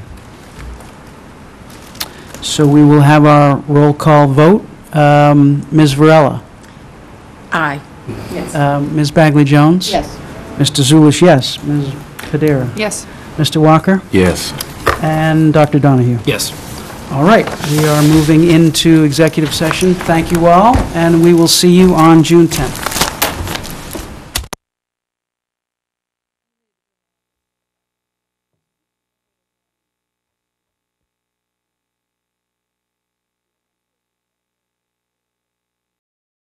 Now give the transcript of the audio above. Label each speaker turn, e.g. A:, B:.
A: So we will have our roll call vote. Um, Ms. Varela?
B: Aye.
C: Yes.
A: Um, Ms. Bagley Jones?
C: Yes.
A: Mr. Zulish, yes. Ms. Padera?
B: Yes.
A: Mr. Walker?
D: Yes.
A: And Dr. Donahue?
D: Yes.
A: All right, we are moving into executive session. Thank you all, and we will see you on June 10th.